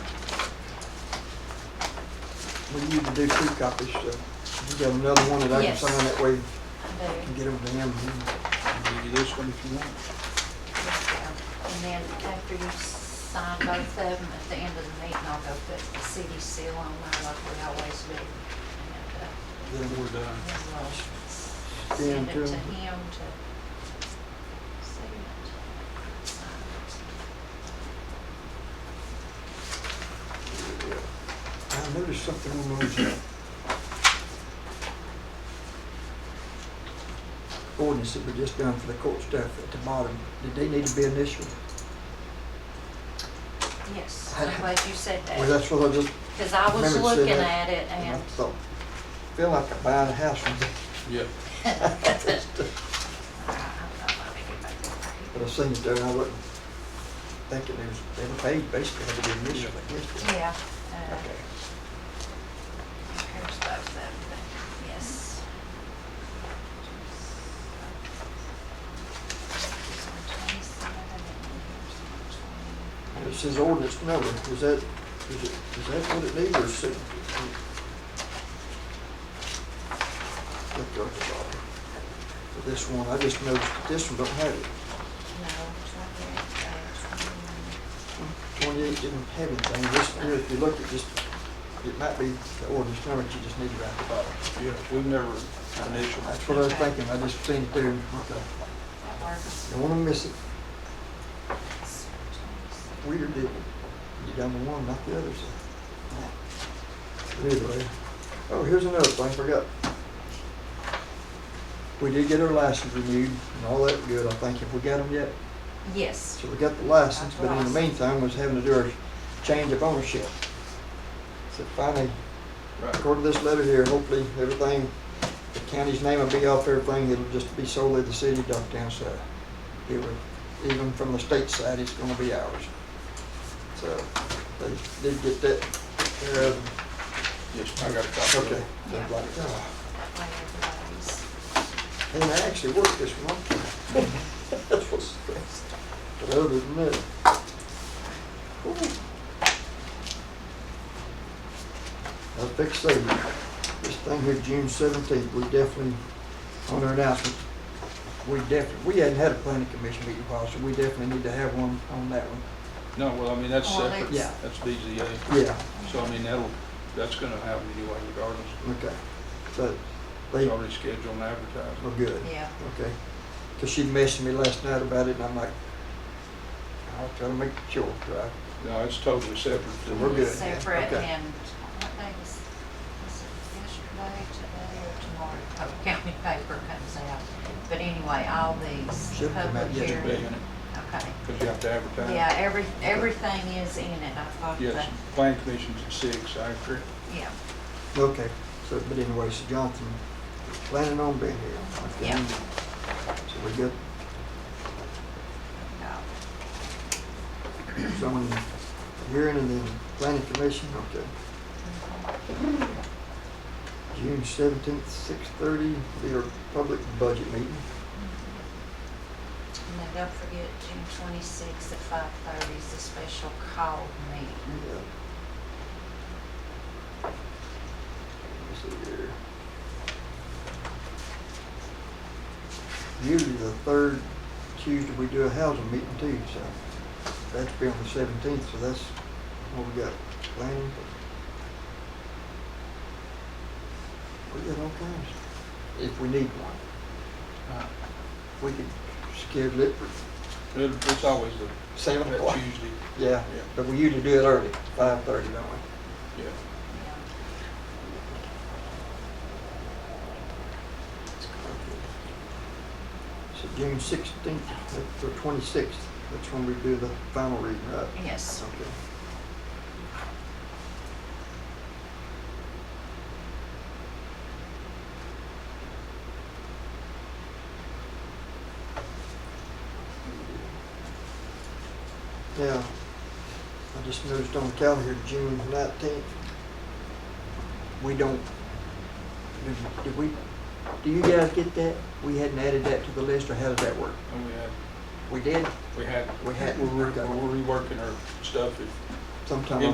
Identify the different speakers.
Speaker 1: We need to do two copies, so you got another one that I can
Speaker 2: Yes.
Speaker 1: sign that way, you
Speaker 2: I do.
Speaker 1: can get them to him.
Speaker 3: I'll give you this one if you want.
Speaker 2: And then after you sign both of them, at the end of the meeting, I'll go put the city seal on mine like we always do. And, uh,
Speaker 3: Then we're done.
Speaker 2: then we'll
Speaker 1: Scan
Speaker 2: uh, Send it
Speaker 1: through.
Speaker 2: to him to see it.
Speaker 1: I noticed something on those ordinance that were just done for the court stuff at the bottom. Did they need to be initialed?
Speaker 2: Yes, I'm glad you said
Speaker 1: Well,
Speaker 2: that,
Speaker 1: that's what I just,
Speaker 2: because I was
Speaker 1: remember it said
Speaker 2: looking
Speaker 1: that.
Speaker 2: at it
Speaker 1: and I
Speaker 2: and,
Speaker 1: thought, feel like I'm buying a house from them.
Speaker 3: Yep.
Speaker 2: I don't know if I can get back there.
Speaker 1: But I seen it there and I wasn't thinking it was, they were paid basically, had to be initialed, I guess.
Speaker 2: Yeah. uh,
Speaker 1: Okay.
Speaker 2: Here's both of them, yes.
Speaker 1: It says ordinance number, is that, is it, is that what it needs or is it? Look there at the bottom. For This one, I just noticed that this one don't have it. Twenty-eight didn't have anything, this here, if you look at this, it might be the ordinance number that you just need to write the bottom.
Speaker 3: Yeah, we've never initialed.
Speaker 1: That's what I was thinking, I just seen it there, and okay, don't wanna miss it, weird that you done the one, not the other, so. But Anyway, oh, here's another thing, I forgot. We did get our license renewed and all that good, I think, have we got them yet?
Speaker 2: Yes,
Speaker 1: So we got the license, but in the
Speaker 2: License.
Speaker 1: meantime, was having to do our change of ownership. So finally,
Speaker 3: Right.
Speaker 1: according to this letter here, hopefully everything, the county's name will be off everything, it'll just be solely the city of Dunkirk side. It will- Even from the state side, it's gonna be ours. So they did get that, uh,
Speaker 3: Yes, I got a copy. of it.
Speaker 1: okay.
Speaker 2: Yeah.
Speaker 1: Like, oh,
Speaker 2: that way everybody's,
Speaker 1: And I actually worked this one. That was stressed. But other than that. whew. I was fixed to say, this thing here, June seventeenth, we definitely, on our announcement, we definitely, we hadn't had a planning commission meeting while, so we definitely need to have one on that one.
Speaker 3: No, well, I mean, that's
Speaker 2: Oh,
Speaker 3: separate.
Speaker 2: that's-
Speaker 1: Yeah.
Speaker 3: That's BZA.
Speaker 1: Yeah,
Speaker 3: So I mean, that'll, that's gonna happen anyway regardless.
Speaker 1: okay. So they
Speaker 3: It's
Speaker 1: were
Speaker 3: already scheduled and advertised.
Speaker 1: good.
Speaker 2: yeah.
Speaker 1: Okay. Because she messaged me last night about it, and I'm like, I'll try to make sure, right?
Speaker 3: No, it's totally separate.
Speaker 1: So we're good. yeah,
Speaker 2: Separate
Speaker 1: okay.
Speaker 2: and, what day was, was it yesterday, today, or tomorrow? Oh, county paper comes out, but anyway, all these
Speaker 1: Should come out
Speaker 2: public
Speaker 3: Should be in
Speaker 2: hearing,
Speaker 3: it,
Speaker 2: okay.
Speaker 3: because you have to advertise.
Speaker 2: Yeah, every, everything is in it, I thought
Speaker 3: Yes,
Speaker 2: that,
Speaker 3: planning commission's at six, I agree.
Speaker 2: yeah.
Speaker 1: Okay, so, but anyway, so Johnson planning on being here. Okay.
Speaker 2: Yeah.
Speaker 1: So we got
Speaker 2: no.
Speaker 1: someone hearing and then planning commission, okay. June seventeenth, six thirty, be our public budget meeting.
Speaker 2: And then don't forget, June twenty-sixth at five thirty is the special call meeting.
Speaker 1: Yeah. Let me see here. Usually the third Tuesday, we do a housing meeting too, so that's be on the seventeenth, so that's what we got planning. for- We got all kinds, if we need one,
Speaker 3: Uh,
Speaker 1: we could schedule it for
Speaker 3: it- It's always the,
Speaker 1: seven
Speaker 3: that
Speaker 1: o'clock.
Speaker 3: Tuesday,
Speaker 1: Yeah,
Speaker 3: Yeah.
Speaker 1: but we usually do it early, five thirty, don't we?
Speaker 3: yeah.
Speaker 2: Yeah.
Speaker 1: So June sixteenth, or twenty-sixth, that's when we do the final reading, right?
Speaker 2: Yes.
Speaker 1: Okay. Yeah, I just noticed on the calendar, June nineteenth. We don't, did- did we, do you guys get that? We hadn't added that to the list, or how did that work?
Speaker 3: And we had,
Speaker 1: We did
Speaker 3: we had,
Speaker 1: We had-
Speaker 3: we're re- we're reworking our stuff. If
Speaker 1: sometime.
Speaker 3: Yeah,